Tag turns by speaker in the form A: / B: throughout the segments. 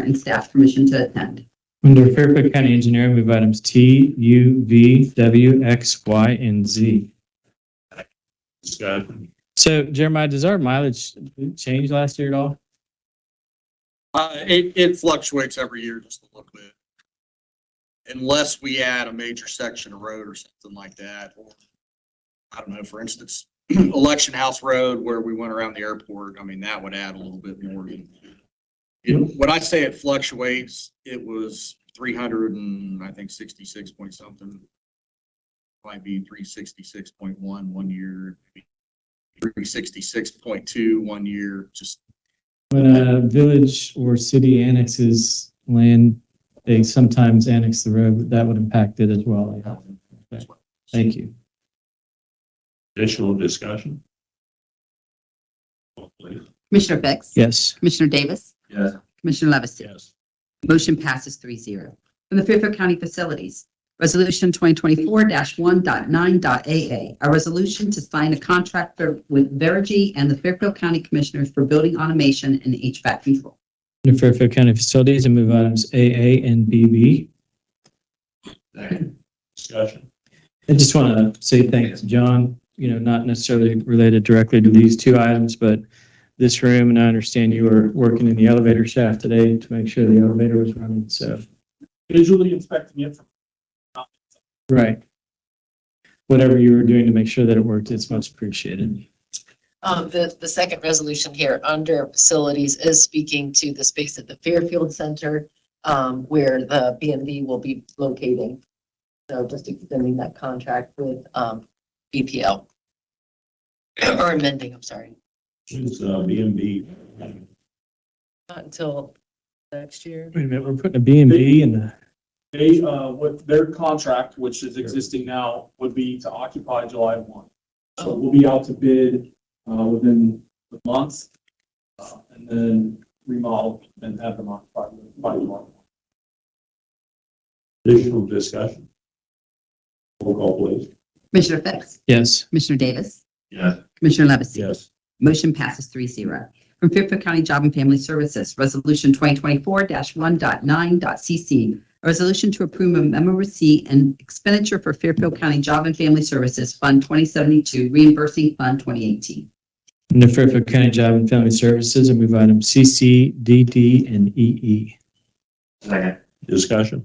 A: and staff permission to attend.
B: Under Fairfield County Engineer, move items T, U, V, W, X, Y, and Z.
C: Discussion.
B: So Jeremiah, does our mileage change last year at all?
D: Uh, it, it fluctuates every year just a little bit. Unless we add a major section of road or something like that, or, I don't know, for instance, Election House Road where we went around the airport, I mean, that would add a little bit more. It- When I say it fluctuates, it was three hundred and, I think, sixty-six point something. Might be three sixty-six point one one year, three sixty-six point two one year, just
B: When a village or city annexes land, they sometimes annex the road, that would impact it as well. Okay. Thank you.
C: Additional discussion? Vote please.
A: Commissioner Fix?
B: Yes.
A: Commissioner Davis?
C: Yes.
A: Commissioner Levesey?
C: Yes.
A: Motion passes three zero. From the Fairfield County Facilities, Resolution 2024-1.9.a.a. A resolution to sign a contract for- with Verigy and the Fairfield County Commissioners for building automation and HVAC control.
B: Under Fairfield County Facilities, I move items AA and BB.
C: Discussion.
B: I just want to say thanks, to John, you know, not necessarily related directly to these two items, but this room, and I understand you were working in the elevator shaft today to make sure the elevator was running, so.
E: visually inspecting it.
B: Right. Whatever you were doing to make sure that it worked, it's much appreciated.
F: Um, the, the second resolution here under facilities is speaking to the space at the Fairfield Center, um, where the B and B will be locating. So just extending that contract with, um, BPL. Or amending, I'm sorry,
C: Is, uh, B and B,
F: not until next year.
B: Wait a minute, we're putting a B and B in the,
E: They, uh, with their contract, which is existing now, would be to occupy July one. So we'll be out to bid, uh, within the month, uh, and then remodel and have them occupied by July.
C: additional discussion? Roll call please.
A: Commissioner Fix?
B: yes.
A: Commissioner Davis?
C: Yes.
A: Commissioner Levesey?
C: Yes.
A: Motion passes three zero. From Fairfield County Job and Family Services, Resolution 2024-1.9.c.c. A resolution to approve a memo receipt and expenditure for Fairfield County Job and Family Services Fund 2072 reimbursing Fund 2018.
B: Under Fairfield County Job and Family Services, I move items CC, DD, and E, EE.
C: Discussion.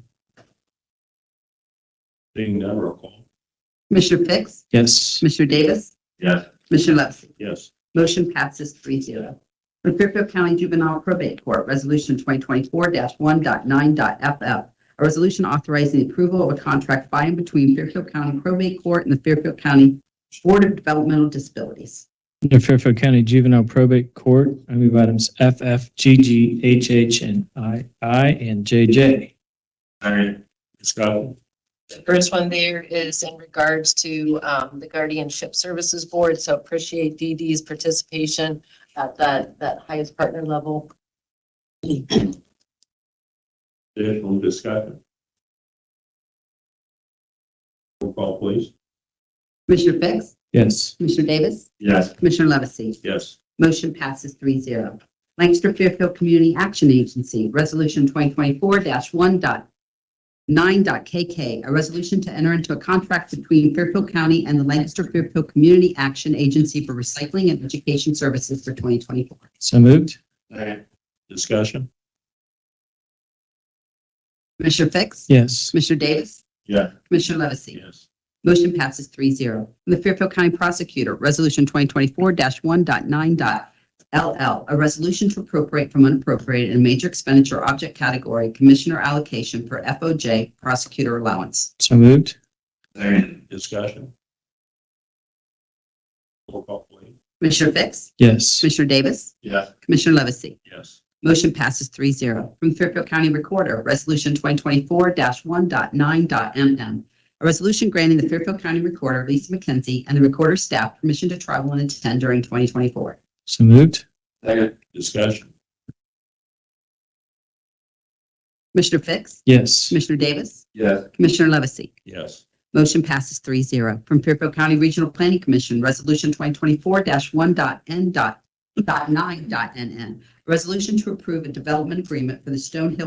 C: Seeing none, roll call.
A: Commissioner Fix?
B: Yes.
A: Commissioner Davis?
C: Yes.
A: Commissioner Levesey?
C: Yes.
A: Motion passes three zero. From Fairfield County Juvenile Probate Court, Resolution 2024-1.9.f.f. A resolution authorizing the approval of a contract by and between Fairfield County Probate Court and the Fairfield County Board of Developmental Disabilities.
B: Under Fairfield County Juvenile Probate Court, I move items F, F, G, G, H, H, and I, I, and J, J.
C: Second. Discussion.
F: The first one there is in regards to um, the Guardianship Services Board, so appreciate DD's participation at that, that highest partner level.
C: Additional discussion. Roll call please.
A: Commissioner Fix?
B: Yes.
A: Commissioner Davis?
C: Yes.
A: Commissioner Levesey?
C: Yes.
A: Motion passes three zero. Lancaster Fairfield Community Action Agency, Resolution 2024-1.9.KK, a resolution to enter into a contract between Fairfield County and the Lancaster Fairfield Community Action Agency for Recycling and Education Services for 2024.
B: So moved?
C: Discussion.
A: Commissioner Fix?
B: Yes.
A: Commissioner Davis?
C: Yeah.
A: Commissioner Levesey?
C: Yes.
A: Motion passes three zero. From the Fairfield County Prosecutor, Resolution 2024-1.9.LL, a resolution to appropriate from unappropriated in major expenditure object category, Commissioner allocation for FOJ prosecutor allowance.
B: So moved?
C: Discussion. Roll call please.
A: Commissioner Fix?
B: Yes.
A: Commissioner Davis?
C: Yeah.
A: Commissioner Levesey?
C: Yes.
A: Motion passes three zero. From Fairfield County Recorder, Resolution 2024-1.9.MM. A resolution granting the Fairfield County Recorder, Lisa McKenzie, and the Recorder's staff permission to travel and attend during 2024.
B: So moved?
C: Discussion.
A: Commissioner Fix?
B: Yes.
A: Commissioner Davis?
C: Yes.
A: Commissioner Levesey?
C: Yes.
A: Motion passes three zero. From Fairfield County Regional Planning Commission, Resolution 2024-1.n.9.nn. Resolution to approve a development agreement for the Stonehill